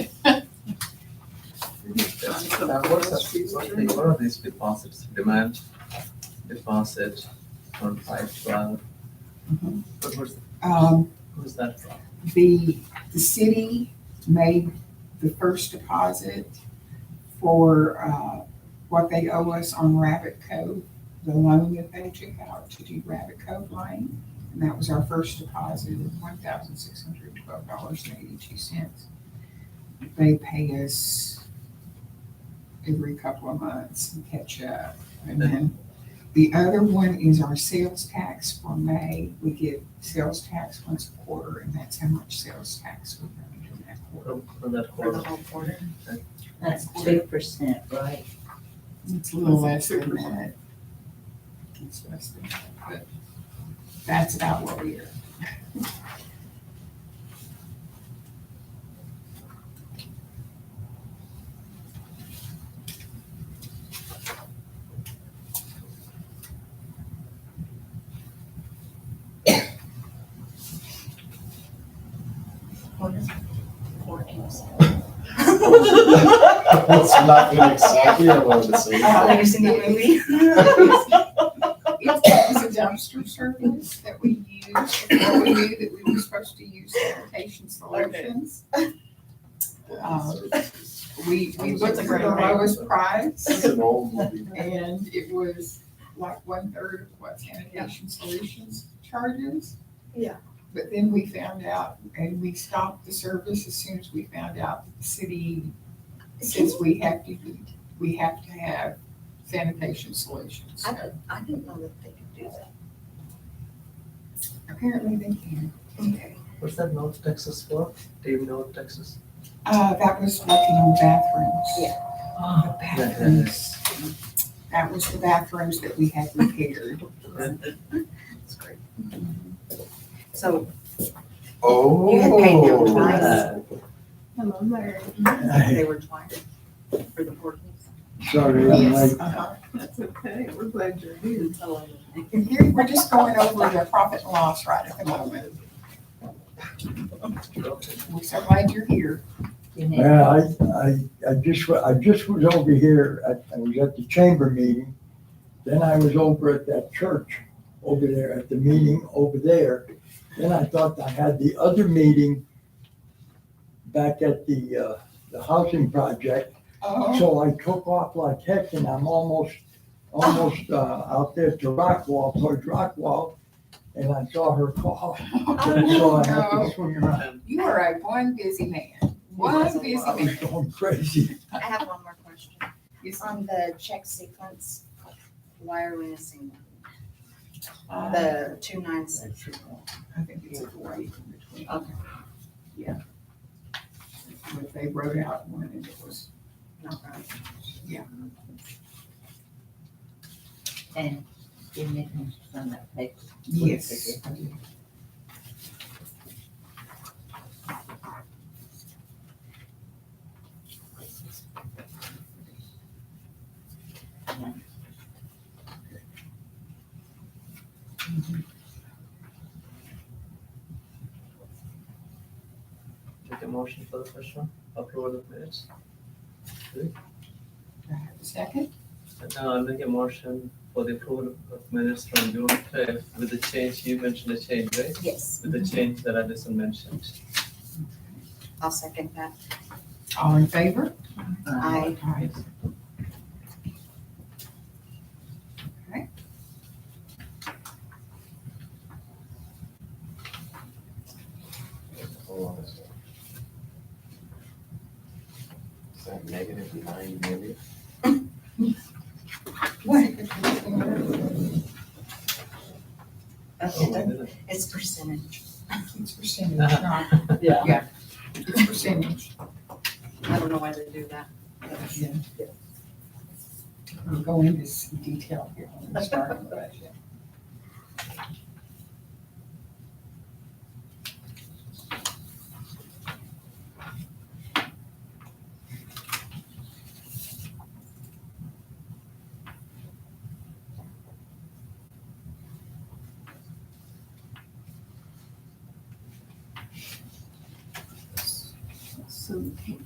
What subsidies, what they, what are these deposits, demand deposit on five twelve? What was, Um, who's that from? the, the city made the first deposit for, uh, what they owe us on Rabbit Cove, the loan that they took out to do Rabbit Cove Lane. And that was our first deposit of one thousand six hundred twelve dollars and eighty-two cents. They pay us every couple of months and catch up. And then the other one is our sales tax for May. We get sales tax once a quarter, and that's how much sales tax we're going to do that quarter. From, from that For the quarter? whole quarter? That's two percent, right? It's a little less than that. It's less than that, but that's about what we are. Quarter? Quarters. It's nothing exactly Oh, I wanted to say. Have you seen the movie? It was a dumpster service that we used, before we knew that we were supposed to use sanitation solutions. Oh. Um, We, we looked for the lowest It's price, an old movie. and it was like one-third of what sanitation solutions charges. Yeah. But then we found out, and we stopped the service as soon as we found out that the city, since we have to, we have to have sanitation solutions, I so. didn't, I didn't know that they could do that. Apparently they can. Okay. What's that North Texas for? Do you know Texas? Uh, that was working on bathrooms. Yeah. The bathrooms. That was the bathrooms that we had repaired. That's great. So Oh. You had paid them twice. Hello, Mary. they were twice for the quarters. Sorry, I'm Yes. late. uh-huh. That's okay. We're glad you're here. Oh, okay. And here, we're just going over the profit and loss right at the moment. We're so glad you're here. You need- Yeah, I, I, I just, wa- I just was over here, I, I was at the chamber meeting. Then I was over at that church over there, at the meeting over there. Then I thought I had the other meeting back at the, uh, the housing project. Oh, So I took off like heck and I'm almost, almost, uh, out there to Rockwall, towards Rockwall. And I saw her call, so I had to swing around. you are a one busy man, one busy I was man. going crazy. I have one more question. Yes. On the check sequence, why are we missing one? Uh, The two nine six. I think it's a void in between. Okay. Yeah. But they wrote out one and it was Not right. And you need them from that paper. Yes. Take a motion for the first one, approval of minutes. Do I have a Second, And now I'll make a motion for the approval of minutes from June fifth with the change, you mentioned a change, right? Yes, With the change that Addison mentioned. I'll second that. all in favor? I, Aye. Okay. Hold on a second. Is that negative nine million? What? Oh, okay, it's percentage. It's percentage, not, yeah, it's percentage. I don't know why they do that. Yeah. We'll go into some detail here when we start on the budget. So